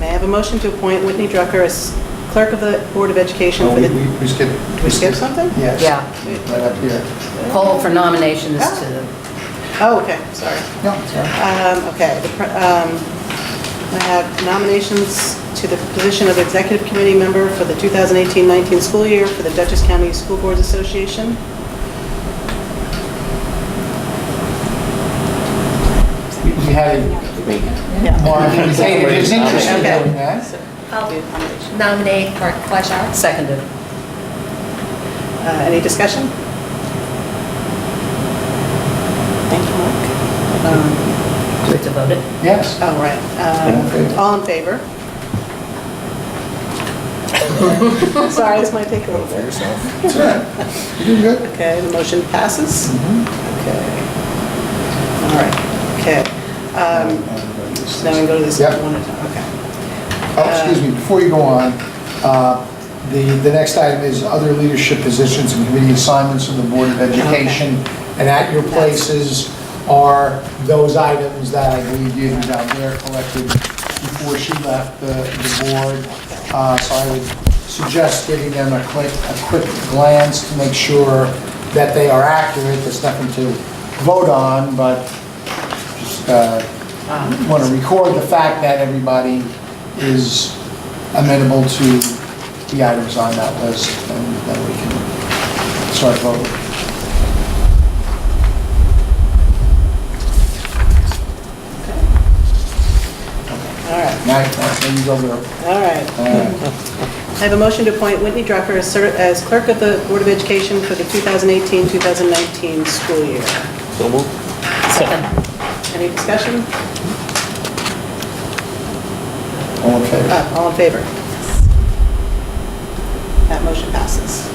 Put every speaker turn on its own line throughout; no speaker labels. have a motion to appoint Whitney Drucker as clerk of the Board of Education
Oh,
for
we-
the...
we we skipped.
we skip something?
Yes.
Yeah.
Right up here.
Poll for nominations to the,
Oh, okay, sorry.
no, it's all right.
Um, Okay, the pr- um, I have nominations to the position of executive committee member for the 2018-19 school year for the Dutchess County School Boards Association.
We we had, a- wait, Well, I think it's it's interesting
Okay.
doing that.
I'll
Do nomination.
nominate Mark Fleischow.
seconded.
Uh, Any discussion? Thank you, Mark.
Um, Do we have to vote it?
Yes.
Oh, right.
in favor.
Um, All in favor? Sorry, this might take a little bit.
That's right. You doing good?
Okay, the motion passes.
Mm-hmm.
Okay. All right, okay. Um, Now we can go to this
Yep.
one at a time, okay.
Oh, excuse me, before you go on, uh, the, the next item is other leadership positions and committee assignments of the Board of Education. And at your places are those items that I believe you had down there collected before she left the, the board. Uh, So I would suggest giving them a quick, a quick glance to make sure that they are accurate. There's nothing to vote on, but just uh,
Um,
want to record the fact that everybody is amenable to the items on that list, and then we can start voting.
All right,
Now, now, then you go there.
all right.
Uh,
I have a motion to appoint Whitney Drucker as cer- as clerk of the Board of Education for the 2018-2019 school year.
So moved.
Second.
Any discussion?
All in favor?
Uh, All in favor? That motion passes.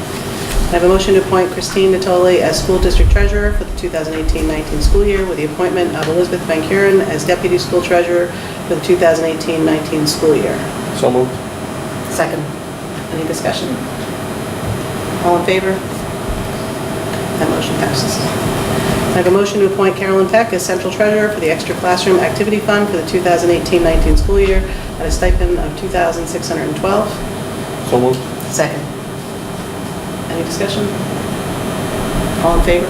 I have a motion to appoint Christine Natoli as school district treasurer for the 2018-19 school year with the appointment of Elizabeth Van Kuren as deputy school treasurer for the 2018-19 school year.
So moved.
Second.
Any discussion? All in favor? That motion passes. I have a motion to appoint Carolyn Peck as central treasurer for the extra classroom activity fund for the 2018-19 school year at a stipend of $2,612.
So moved.
Second.
Any discussion? All in favor?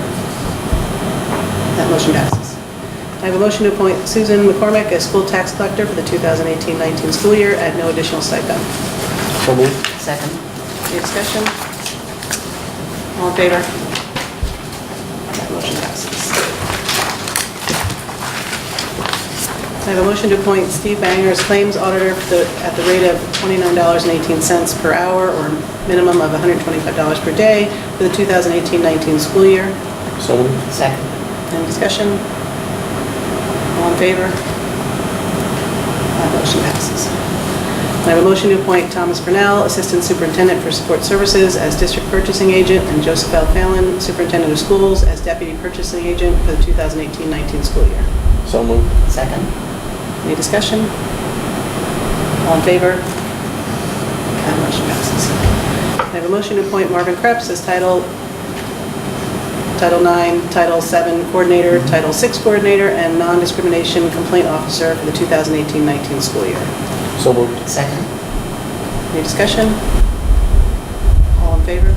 That motion passes. I have a motion to appoint Susan McCormick as school tax collector for the 2018-19 school year at no additional stipend.
So moved.
Second.
Any discussion? All in favor? That motion passes. I have a motion to appoint Steve Banger as claims auditor for the- at the rate of $29.18 per hour or minimum of $125 per day for the 2018-19 school year.
So moved.
Second.
Any discussion? All in favor? That motion passes. I have a motion to appoint Thomas Brunel, Assistant Superintendent for Support Services, as District Purchasing Agent, and Joseph L. Fallon, Superintendent of Schools, as Deputy Purchasing Agent for the 2018-19 school year.
So moved.
Second.
Any discussion? All in favor? That motion passes. I have a motion to appoint Marvin Krebs as Title, Title IX, Title VII Coordinator, Title VI Coordinator, and Non-Discrimination Complaint Officer for the 2018-19 school year.
So moved.
Second.
Any discussion? All in favor?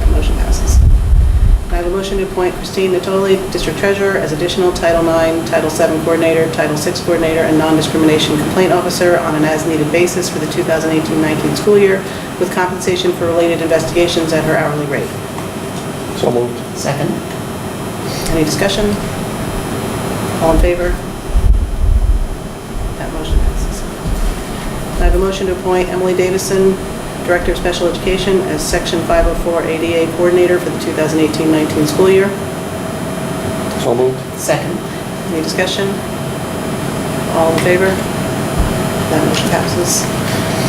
That motion passes. I have a motion to appoint Christine Natoli, District Treasurer, as additional Title IX, Title VII Coordinator, Title VI Coordinator, and Non-Discrimination Complaint Officer on an as-needed basis for the 2018-19 school year, with compensation for related investigations at her hourly rate.
So moved.
Second.
Any discussion? All in favor? That motion passes. I have a motion to appoint Emily Davison, Director of Special Education, as Section 504 ADA Coordinator for the 2018-19 school year.
So moved.
Second.
Any discussion? All in favor? That motion passes.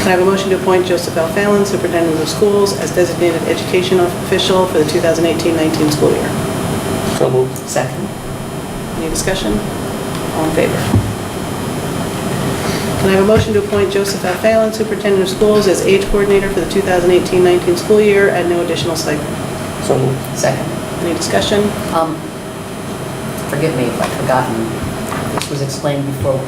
Can I have a motion to appoint Joseph L. Fallon, Superintendent of Schools, as Designated Education Official for the 2018-19 school year?
So moved.
Second.
Any discussion? All in favor? Can I have a motion to appoint Joseph F. Fallon, Superintendent of Schools, as Age Coordinator for the 2018-19 school year at no additional stipend?
So moved.
Second.
Any discussion?
Um, Forgive me if I've forgotten. This was explained before.